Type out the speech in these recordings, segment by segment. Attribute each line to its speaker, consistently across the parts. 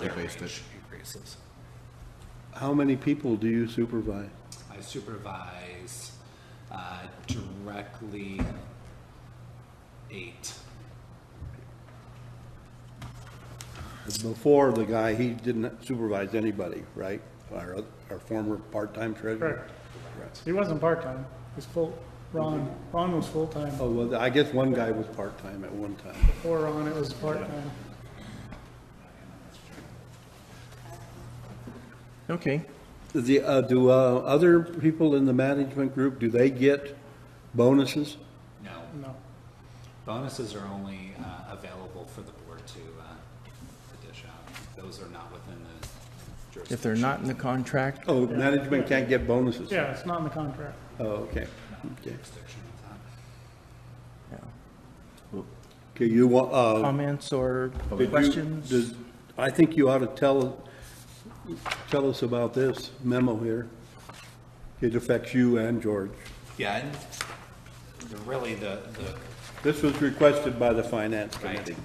Speaker 1: their
Speaker 2: based it.
Speaker 1: wage increases.
Speaker 3: How many people do you supervise?
Speaker 1: I supervise uh, directly eight.
Speaker 3: Before, the guy, he didn't supervise anybody, right? Our, our former part-time treasurer?
Speaker 2: Correct. He wasn't part-time, he was full, Ron, Ron was full-time.
Speaker 3: Oh, well, I guess one guy was part-time at one time.
Speaker 2: Before Ron, it was part-time.
Speaker 4: Okay.
Speaker 3: The, uh, do, uh, other people in the management group, do they get bonuses?
Speaker 1: No,
Speaker 2: No,
Speaker 1: bonuses are only uh, available for the board to, uh, to dish out. Those are not within the jurisdiction.
Speaker 4: If they're not in the contract,
Speaker 3: Oh, management can't get bonuses?
Speaker 2: yeah, it's not in the contract.
Speaker 3: Oh, okay, okay.
Speaker 1: Jurisdiction of that.
Speaker 4: yeah.
Speaker 3: Okay, you want, uh,
Speaker 4: comments or
Speaker 3: Did you-
Speaker 4: Um, questions?
Speaker 3: does- I think you ought to tell, tell us about this memo here. It affects you and George.
Speaker 1: Yeah, and the- really the, the
Speaker 3: This was requested by the Finance Committee.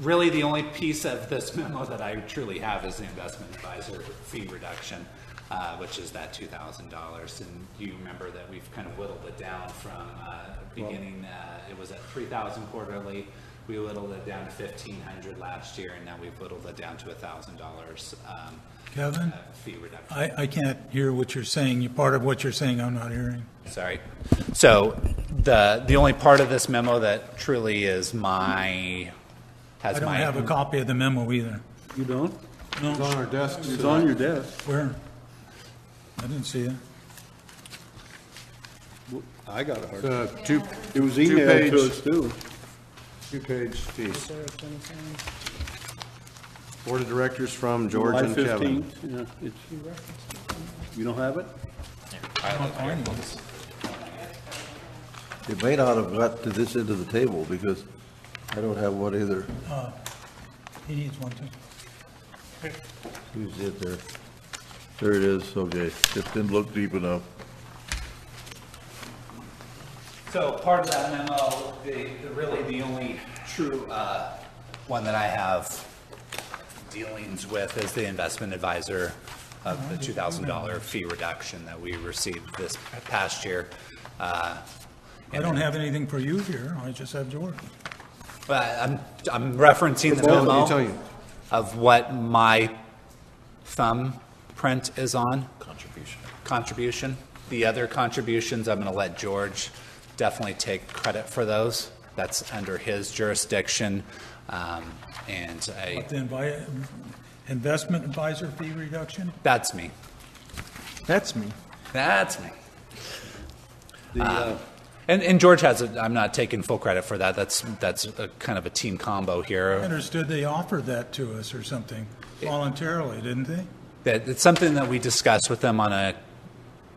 Speaker 1: really the only piece of this memo that I truly have is the investment advisor fee reduction, uh, which is that two thousand dollars. And you remember that we've kind of whittled it down from, uh, beginning, uh, it was at three thousand quarterly. We whittled it down to fifteen hundred last year and now we've whittled it down to a thousand dollars, um, uh,
Speaker 5: Kevin,
Speaker 1: fee reduction.
Speaker 5: I, I can't hear what you're saying. You, part of what you're saying, I'm not hearing.
Speaker 1: Sorry. So the, the only part of this memo that truly is my,
Speaker 5: I
Speaker 1: has
Speaker 5: don't
Speaker 1: my.
Speaker 5: have a copy of the memo either.
Speaker 3: You don't?
Speaker 5: No,
Speaker 3: our desk. It's on your desk.
Speaker 5: where? I didn't see it.
Speaker 3: I got a hard
Speaker 6: Uh, two,
Speaker 3: It was emailed
Speaker 6: Two-page.
Speaker 3: to us too.
Speaker 6: two-page piece.
Speaker 2: Sarah, it's in the same-
Speaker 6: Board of Directors from George and
Speaker 3: July
Speaker 6: Kevin.
Speaker 3: 15th, yeah, it's, you don't have it?
Speaker 7: It may not have got to this end of the table, because I don't have one either.
Speaker 5: He needs one too.
Speaker 7: Who's it there? There it is, okay. Just didn't look deep enough.
Speaker 1: So part of that memo, the, the really the only true, uh, one that I have dealings with is the investment advisor of the two thousand dollar fee reduction that we received this past year. Uh,
Speaker 5: I don't have anything for you here. I just have yours.
Speaker 1: But I'm, I'm referencing the
Speaker 6: both of you,
Speaker 1: memo
Speaker 6: tell you.
Speaker 1: of what my thumbprint is on. Contribution. Contribution. The other contributions, I'm going to let George definitely take credit for those. That's under his jurisdiction. Um, And I,
Speaker 5: But the invite, investment advisor fee reduction,
Speaker 1: that's me.
Speaker 4: That's me.
Speaker 1: That's me. Um,
Speaker 3: The, uh,
Speaker 1: And, and George has, it. I'm not taking full credit for that. That's, that's a kind of a team combo
Speaker 5: I
Speaker 1: here.
Speaker 5: understood they offered that to us or something voluntarily, didn't they?
Speaker 1: that it's something that we discuss with them on a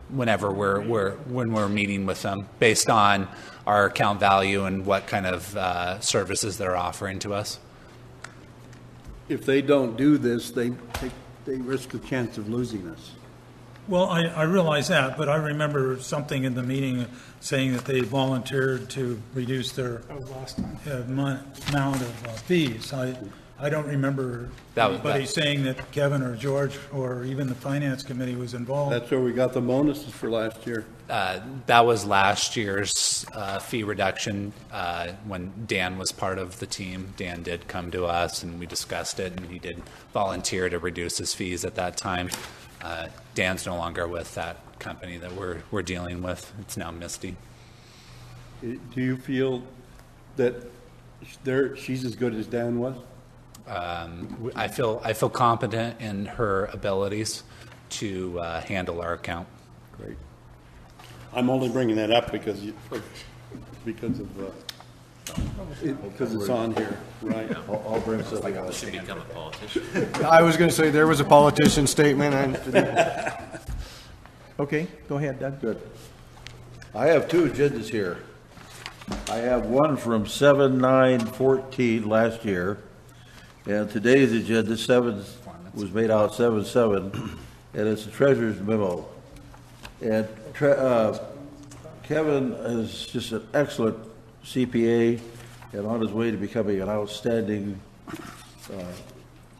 Speaker 1: whenever we're, we're when we're meeting with them based on our account value and what kind of uh, services they're offering to us.
Speaker 3: If they don't do this, they, they- they risk the chance of losing us.
Speaker 5: Well, I, I realize that, but I remember something in the meeting saying that they volunteered to reduce their
Speaker 3: Oh,
Speaker 2: That was last time.
Speaker 5: uh, mon- amount of uh, fees. I, I don't remember
Speaker 1: That was-
Speaker 5: anybody
Speaker 1: that-
Speaker 5: saying that Kevin or George or even the finance committee was involved.
Speaker 3: That's where we got the bonuses for last year.
Speaker 1: Uh, that was last year's uh, fee reduction uh, when Dan was part of the team. Dan did come to us and we discussed it, and he did volunteer to reduce his fees at that time. Uh, Dan's no longer with that company that we're we're dealing with. It's now Misty.
Speaker 3: Do you feel that there, she's as good as Dan was?
Speaker 1: Um, I feel, I feel competent in her abilities to uh, handle our account.
Speaker 3: Great. I'm only bringing that up because you, because of, uh, it- because it's on here, right?
Speaker 7: I'll, I'll bring something else.
Speaker 6: I was going to say, there was a politician statement, and
Speaker 4: Okay, go ahead, Doug.
Speaker 7: Good. I have two agendas here. I have one from seven, nine, fourteen last year, and today's agenda, seven, was made out seven, seven, and it's the treasurer's memo. And tre- uh, Kevin is just an excellent CPA and on his way to becoming an outstanding uh,